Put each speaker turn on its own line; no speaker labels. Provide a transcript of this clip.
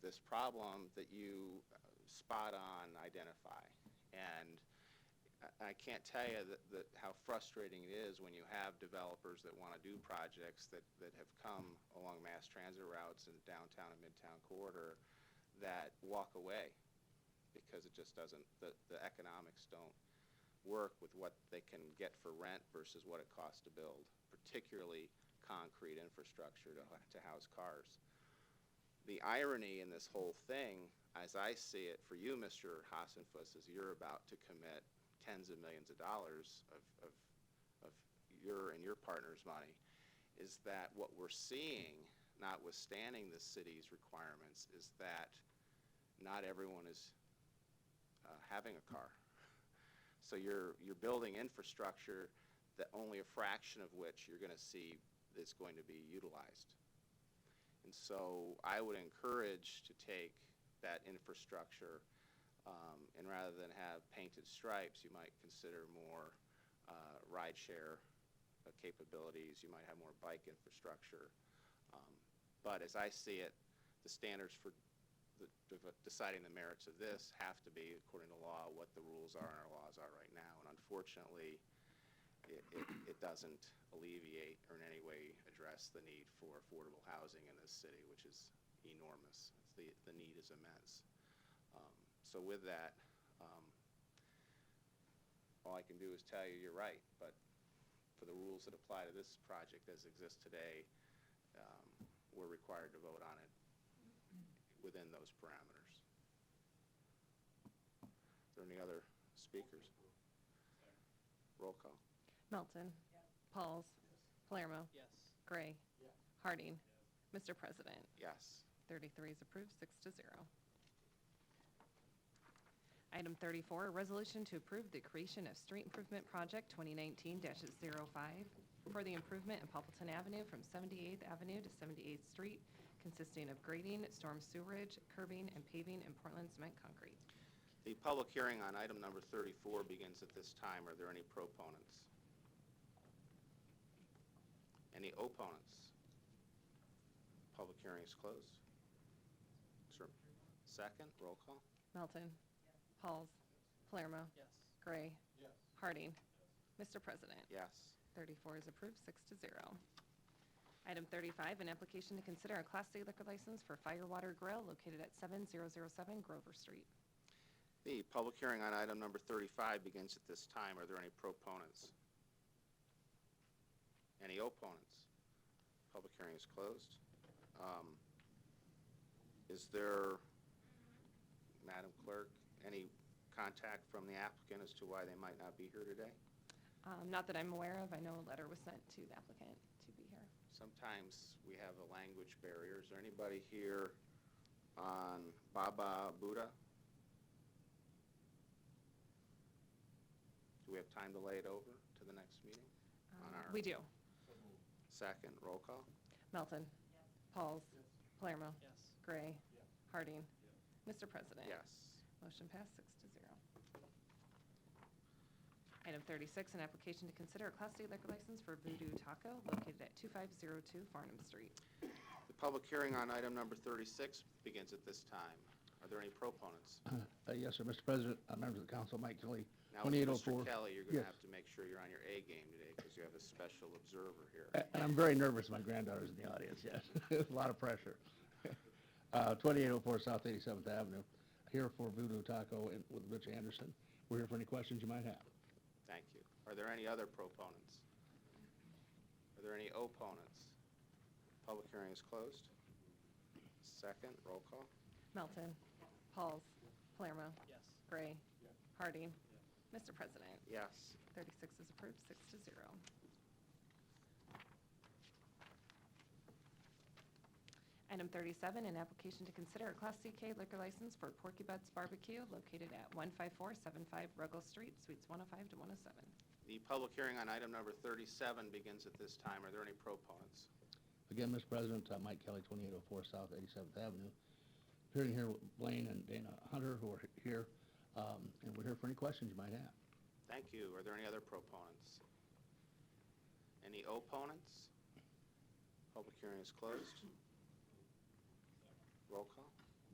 problem that you uh, spot on identify. And I- I can't tell you that, that how frustrating it is when you have developers that want to do projects that, that have come along mass transit routes in downtown and midtown corridor that walk away because it just doesn't, the, the economics don't work with what they can get for rent versus what it costs to build, particularly concrete infrastructure to, to house cars. The irony in this whole thing, as I see it for you, Mr. Hassenfuss, is you're about to commit tens of millions of dollars of, of, of your and your partner's money, is that what we're seeing, notwithstanding the city's requirements, is that not everyone is uh, having a car. So you're, you're building infrastructure that only a fraction of which you're going to see is going to be utilized. And so I would encourage to take that infrastructure, um, and rather than have painted stripes, you might consider more, uh, rideshare uh, capabilities. You might have more bike infrastructure. Um, But as I see it, the standards for the, de- deciding the merits of this have to be, according to law, what the rules are and our laws are right now. And unfortunately, it, it, it doesn't alleviate or in any way address the need for affordable housing in this city, which is enormous. It's The, the need is immense. Um, So with that, um, all I can do is tell you, you're right, but for the rules that apply to this project as exists today, um, we're required to vote on it within those parameters. Are there any other speakers? Roll call.
Melton. Pauls. Palermo.
Yes.
Gray. Harding. Mr. President,
Yes.
33 is approved, six to zero. Item 34, a resolution to approve the creation of Street Improvement Project 2019-05 for the improvement in Poppleton Avenue from 78th Avenue to 78th Street, consisting of grading, storm sewerage, curbing, and paving in Portland cement concrete.
The public hearing on item number 34 begins at this time. Are there any proponents? Any opponents? Public hearing is closed. Sir, second, roll call.
Melton. Pauls. Palermo.
Yes.
Gray. Harding. Mr. President.
Yes.
34 is approved, six to zero. Item 35, an application to consider a Class C liquor license for Firewater Grill located at 7007 Grover Street.
The public hearing on item number 35 begins at this time. Are there any proponents? Any opponents? Public hearing is closed. Um, Is there, Madam Clerk, any contact from the applicant as to why they might not be here today?
Um, Not that I'm aware of, I know a letter was sent to the applicant to be here.
Sometimes we have a language barrier. Is there anybody here on Baba Buddha? Do we have time to lay it over to the next meeting? On
Um,
our
We do.
Second, roll call?
Melton. Pauls. Palermo.
Yes.
Gray. Harding. Mr. President.
Yes.
Motion passed, six to zero. Item 36, an application to consider a Class C liquor license for Voodoo Taco located at 2502 Farnham Street.
The public hearing on item number 36 begins at this time. Are there any proponents?
Uh, Yes, sir, Mr. President, uh, members of the council, Mike Kelly,
Now, with Mr.
2804.
Kelly, you're going to
Yes.
have to make sure you're on your A game today because you have a special observer here.
A- And I'm very nervous, my granddaughter's in the audience, yes. A lot of pressure. Uh, 2804 South 87th Avenue, here for Voodoo Taco and- with Rich Anderson. We're here for any questions you might have.
Thank you. Are there any other proponents? Are there any opponents? Public hearing is closed. Second, roll call.
Melton. Pauls. Palermo.
Yes.
Gray. Harding. Mr. President,
Yes.
36 is approved, six to zero. Item 37, an application to consider a Class CK liquor license for Porky Butts Barbecue located at 15475 Ruggles Street, Suites 105 to 107.
The public hearing on item number 37 begins at this time. Are there any proponents?
Again, Mr. President, uh, Mike Kelly, 2804 South 87th Avenue, appearing here with Blaine and Dana Hunter, who are here, um, and we're here for any questions you might have.
Thank you. Are there any other proponents? Any opponents? Public hearing is closed. Roll call.